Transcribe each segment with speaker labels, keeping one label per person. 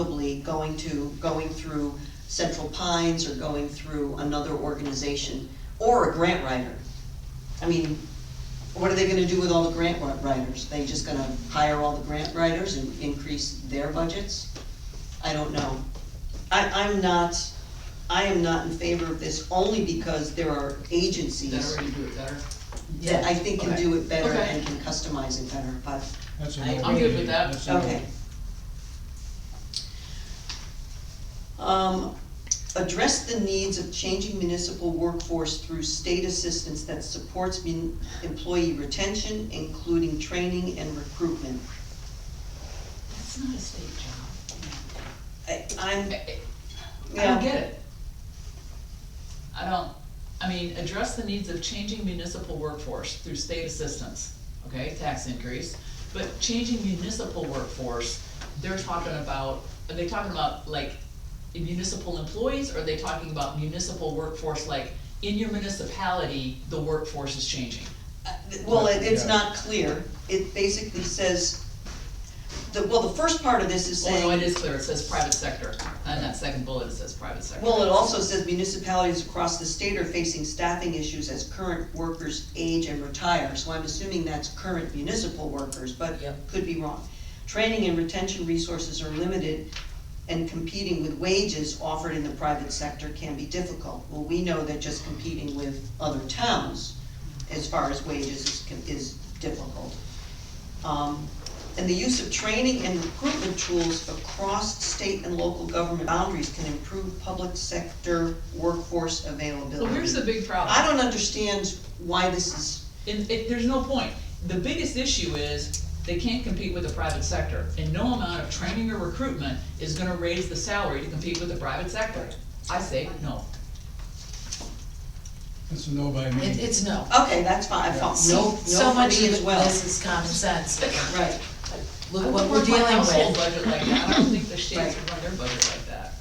Speaker 1: probably going to, going through Central Pines or going through another organization, or a grant writer. I mean, what are they gonna do with all the grant wri- writers? They just gonna hire all the grant writers and increase their budgets? I don't know. I, I'm not, I am not in favor of this only because there are
Speaker 2: That
Speaker 1: agencies
Speaker 2: already do it better.
Speaker 1: that I think can
Speaker 2: Okay.
Speaker 1: do it better
Speaker 2: Okay.
Speaker 1: and can customize it better, but,
Speaker 3: That's a
Speaker 2: I-
Speaker 3: no.
Speaker 2: I'm good with that.
Speaker 3: That's a no.
Speaker 1: okay. Um, address the needs of changing municipal workforce through state assistance that supports mun- employee retention, including training and recruitment.
Speaker 2: That's not a state job.
Speaker 1: I, I'm,
Speaker 2: I- I don't
Speaker 1: yeah,
Speaker 2: get it. I don't, I mean, address the needs of changing municipal workforce through state assistance, okay, tax increase. But changing municipal workforce, they're talking about, are they talking about like municipal employees? Or are they talking about municipal workforce, like in your municipality, the workforce is changing?
Speaker 1: Uh, well, it- it's
Speaker 3: Yeah.
Speaker 1: not clear, it basically says, the, well, the first part of this is saying.
Speaker 2: Although Oh, it is clear, it says private sector, and that second bullet, it says private sector.
Speaker 1: Well, it also says municipalities across the state are facing staffing issues as current workers age and retire, so I'm assuming that's current municipal workers, but
Speaker 2: Yep.
Speaker 1: could be wrong. Training and retention resources are limited, and competing with wages offered in the private sector can be difficult. Well, we know that just competing with other towns as far as wages is, is difficult. Um, and the use of training and recruitment tools across state and local government boundaries can improve public sector workforce availability.
Speaker 2: So here's the big problem.
Speaker 1: I don't understand why this is,
Speaker 2: And it, there's no point. The biggest issue is they can't compete with the private sector, and no amount of training or recruitment is gonna raise the salary to compete with the private sector. I say no.
Speaker 3: That's a no by me.
Speaker 4: It, it's no.
Speaker 1: okay, that's fine, I felt,
Speaker 4: Oh, See,
Speaker 1: no,
Speaker 4: So
Speaker 1: no for
Speaker 4: much
Speaker 1: me as
Speaker 4: of
Speaker 1: well.
Speaker 4: this is common sense.
Speaker 1: Right,
Speaker 4: Look what
Speaker 2: I
Speaker 4: we're
Speaker 2: wouldn't run my
Speaker 4: dealing
Speaker 2: household
Speaker 4: with.
Speaker 2: budget like that. I don't think the states would run their budget like that.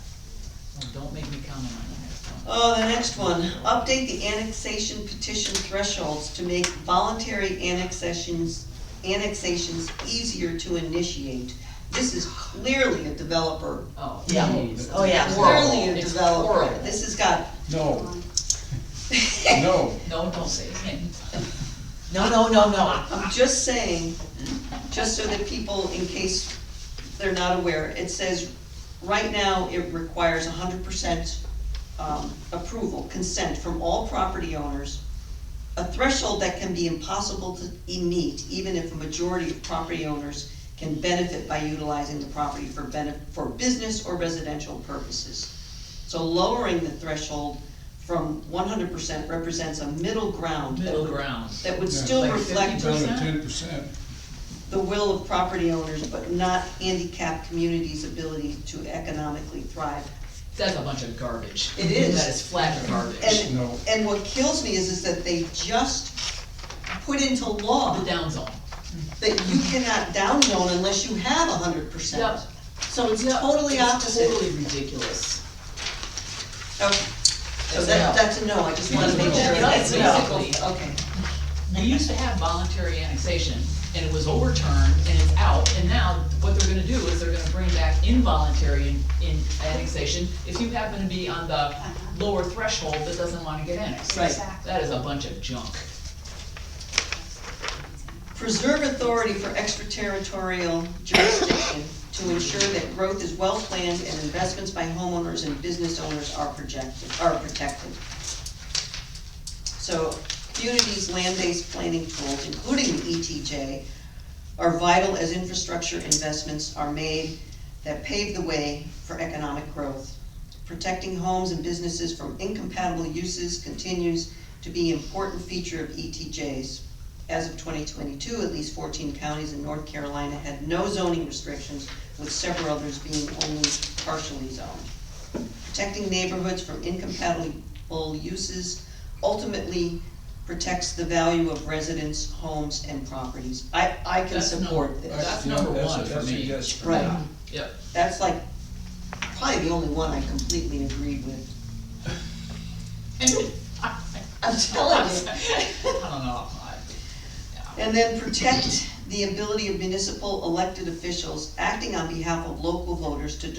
Speaker 2: Well, don't make me comment on the next one.
Speaker 1: oh, the next one, update the annexation petition thresholds to make voluntary annexations, annexations easier to initiate. This is clearly a developer
Speaker 2: Oh.
Speaker 4: Yeah.
Speaker 2: geez.
Speaker 4: Oh, yeah.
Speaker 2: It's horrible.
Speaker 1: Clearly a
Speaker 2: It's
Speaker 1: developer,
Speaker 2: horrible.
Speaker 1: this has got,
Speaker 3: No, no,
Speaker 2: No, don't say his name.
Speaker 4: No, no, no, no.
Speaker 1: I'm just saying, just so that people, in case they're not aware, it says, right now, it requires hundred percent um, approval, consent from all property owners, a threshold that can be impossible to e- meet, even if a majority of property owners can benefit by utilizing the property for benef, for business or residential purposes. So lowering the threshold from one hundred percent represents a middle ground. that
Speaker 2: Middle
Speaker 1: would-
Speaker 2: ground.
Speaker 1: that would
Speaker 3: Yeah.
Speaker 1: still
Speaker 2: Like
Speaker 1: reflect
Speaker 3: down to
Speaker 2: 50%?
Speaker 3: ten percent.
Speaker 1: the will of property owners, but not handicapped communities' ability to economically thrive.
Speaker 2: That's a bunch of garbage.
Speaker 1: It is.
Speaker 2: That is flat garbage.
Speaker 1: And-
Speaker 3: No.
Speaker 1: And what kills me is, is that they just put into law
Speaker 2: The down zone.
Speaker 1: that you cannot downzone unless you have hundred percent.
Speaker 2: Yep.
Speaker 1: So it's totally
Speaker 2: It's
Speaker 1: opposite.
Speaker 2: Totally ridiculous.
Speaker 1: Okay, so
Speaker 4: It's a
Speaker 1: that,
Speaker 4: no.
Speaker 1: that's a no, I just wanted to make sure.
Speaker 2: It's a no,
Speaker 1: that's
Speaker 2: basically.
Speaker 1: Okay,
Speaker 2: We used to have voluntary annexation, and it was overturned, and it's out, and now what they're gonna do is they're gonna bring back involuntary in, in annexation if you happen to be on the lower threshold that doesn't wanna get annexed.
Speaker 1: right.
Speaker 2: That is a bunch of junk.
Speaker 1: Preserve authority for extraterritorial jurisdiction to ensure that growth is well-planned and investments by homeowners and business owners are projected, are protected. So communities' land-based planning tools, including the ETJ, are vital as infrastructure investments are made that pave the way for economic growth. Protecting homes and businesses from incompatible uses continues to be an important feature of ETJs. As of twenty twenty-two, at least fourteen counties in North Carolina had no zoning restrictions, with several others being only partially zoned. Protecting neighborhoods from incompatible uses ultimately protects the value of residents, homes, and properties. I, I can
Speaker 2: That's no-
Speaker 1: support this.
Speaker 2: That's number
Speaker 3: Yeah, that's a-
Speaker 2: one for
Speaker 3: that's a
Speaker 2: me.
Speaker 3: yes for
Speaker 1: Right.
Speaker 3: me.
Speaker 2: Yep.
Speaker 1: That's like, probably the only one I completely agreed with.
Speaker 2: And I-
Speaker 1: I'm telling you.
Speaker 2: I don't know. I- yeah.
Speaker 1: And then protect the ability of municipal elected officials acting on behalf of local voters to